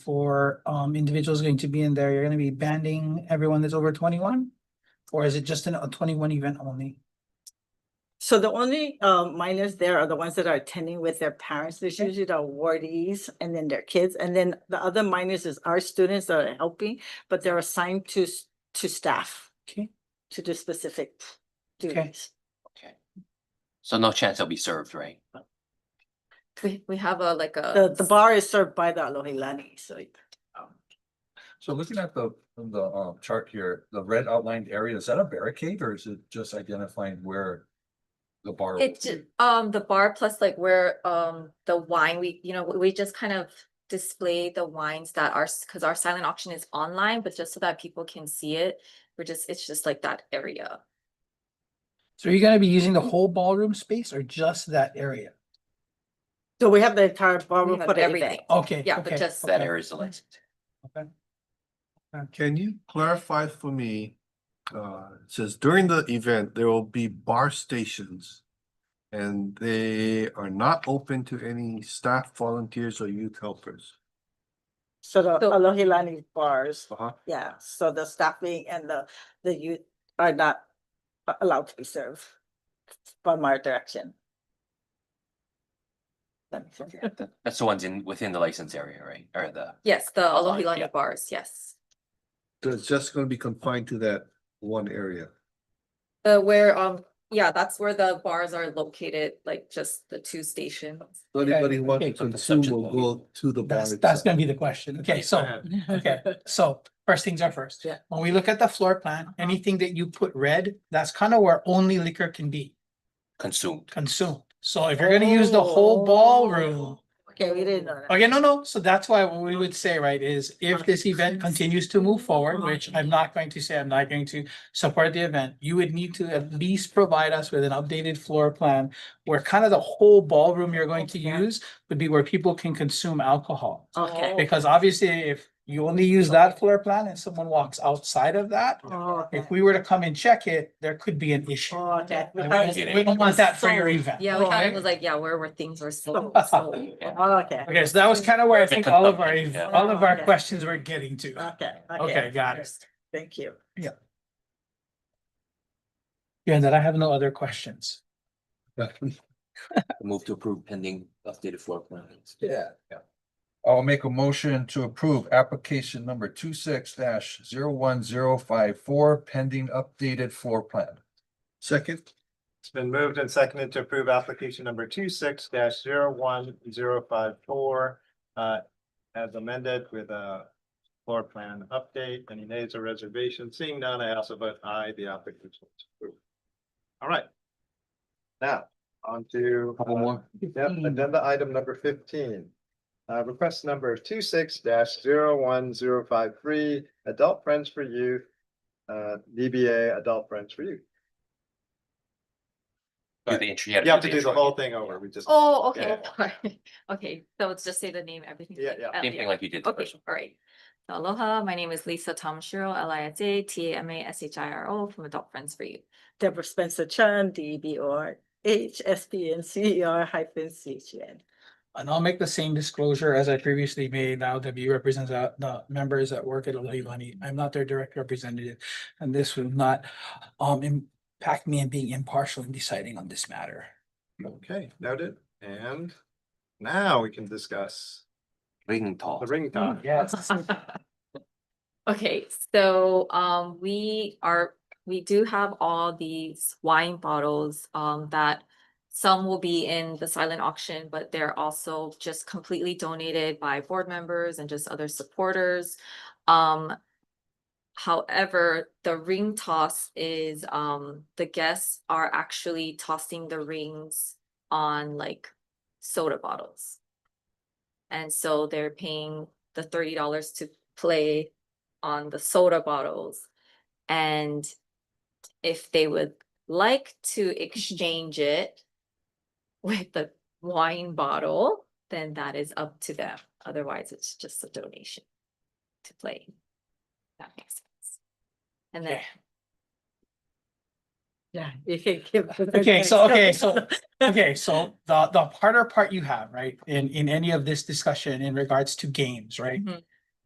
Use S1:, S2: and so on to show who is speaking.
S1: for um individuals going to be in there, you're gonna be banning everyone that's over twenty-one? Or is it just an- a twenty-one event only?
S2: So the only uh minors there are the ones that are attending with their parents. There's usually the awardees and then their kids. And then the other minors is our students that are helping, but they're assigned to s- to staff
S1: Okay,
S2: to do specific duties.
S3: Okay. So no chance they'll be served, right?
S4: We, we have a, like a.
S2: The the bar is served by the Alohilani, so
S5: So looking at the, the um chart here, the red outlined area, is that a barricade or is it just identifying where? The bar? will
S4: It's,
S5: be?
S4: um, the bar plus like where, um, the wine, we, you know, we- we just kind of display the wines that are, s- cause our silent auction is online, but just so that people can see it. We're just, it's just like that area.
S1: so you're gonna be using the whole ballroom space or just that area?
S2: so we have the entire
S4: We
S2: ballroom
S4: have
S2: for the Oh.
S4: everything.
S2: event.
S1: Okay.
S4: Yeah, but
S1: okay,
S4: just-
S3: That
S1: okay,
S3: area is the license.
S1: okay.
S6: Can you clarify for me? Uh, it says during the event, there will be bar stations. And they are not open to any staff, volunteers or youth helpers.
S2: So the
S4: So-
S2: Alohilani bars,
S6: Uh-huh.
S2: yeah, so the staffing and the the youth are not a- allowed to be served by my direction. That makes sense.
S3: That's the ones in, within the license area, right? Or the,
S4: Yes, the
S2: Oh,
S3: Online, yeah.
S4: Alohilani bars, yes.
S6: So it's just gonna be confined to that one area.
S4: The where, um, yeah, that's where the bars are located, like just the two stations.
S6: So anybody who wants
S1: okay,
S6: to
S3: so the
S6: consume
S3: subject
S6: will
S3: will
S6: go to the bar.
S1: That's, that's
S6: itself.
S1: gonna be the question. Okay, so, okay, so first things are first.
S2: Yeah.
S1: When we look at the floor plan, anything that you put red, that's kind of where only liquor can be
S3: consumed.
S1: consumed. So if you're gonna use the whole ballroom,
S2: Okay, we didn't know that.
S1: Okay, no, no, so that's why what we would say, right, is if this event continues to move forward, which I'm not going to say, I'm not going to support the event, you would need to at least provide us with an updated floor plan where kind of the whole ballroom you're going to
S2: Okay.
S1: use would be where people can consume alcohol.
S2: Okay.
S1: Because obviously, if you only use that floor plan and someone walks outside of that,
S2: Oh, okay.
S1: if we were to come and check it, there could be an issue.
S2: Oh, okay.
S1: And
S2: Oh,
S1: We don't- we don't want that for your
S4: Sold.
S1: event.
S4: Yeah, we had, it
S1: okay?
S4: was like, yeah, where, where things were sold. sold.
S3: Yeah.
S2: Okay,
S1: Okay, so that was kind of where I think all of our,
S3: Yeah.
S1: all of our
S2: Okay.
S1: questions were getting to.
S2: okay.
S1: Okay, got it.
S2: Thank you.
S1: Yeah, and then I have no other questions.
S3: Move to approve pending updated floor plans.
S5: Yeah. I'll make a motion to approve application number two six dash zero one zero five four pending updated floor plan.
S6: Second,
S7: It's been moved and seconded to approve application number two six dash zero one zero five four. Uh, as amended with a floor plan update. Any nays or reservations? Seeing none, I also vote aye, the application is approved. All right. Now, on to. uh,
S6: couple more.
S7: Yep, agenda item number fifteen. Uh, request number two six dash zero one zero five three, Adult Friends for Youth. Uh, DBA Adult Friends for Youth.
S3: Do the intro- yeah,
S7: You have to do the
S3: intro.
S7: whole thing over. We just.
S4: Oh, okay,
S3: Yeah.
S4: sorry. okay, so let's just say the name, everything.
S7: Yeah, yeah.
S3: Same thing like you did the
S4: Okay,
S3: first one.
S4: all right. So Aloha, my name is Lisa Tomashiro, L I S A T A M A S H I R O from Adult Friends for You.
S2: Deborah Spencer Chan, D B R H S P N C E R hyphen C H E N.
S1: And I'll make the same disclosure as I previously made. Now W represents uh, the members that work at Money. I'm not their direct representative. And this will not um impact me in being impartial in deciding on this matter.
S7: Okay, noted. And now we can discuss
S3: Ring talk.
S7: the ring talk.
S1: Yes.
S4: Okay, so um we are, we do have all these wine bottles um that some will be in the silent auction, but they're also just completely donated by board members and just other supporters. Um however, the ring toss is um the guests are actually tossing the rings on like soda bottles. And so they're paying the thirty dollars to play on the soda bottles. And if they would like to exchange it with the wine bottle, then that is up to them. Otherwise, it's just a donation to play. That makes sense. And then
S1: Okay.
S2: Yeah, you can give. the
S1: Okay, so, okay,
S2: next.
S1: so, okay, so the the harder part you have, right? In in any of this discussion in regards to games, right?
S4: Mhm.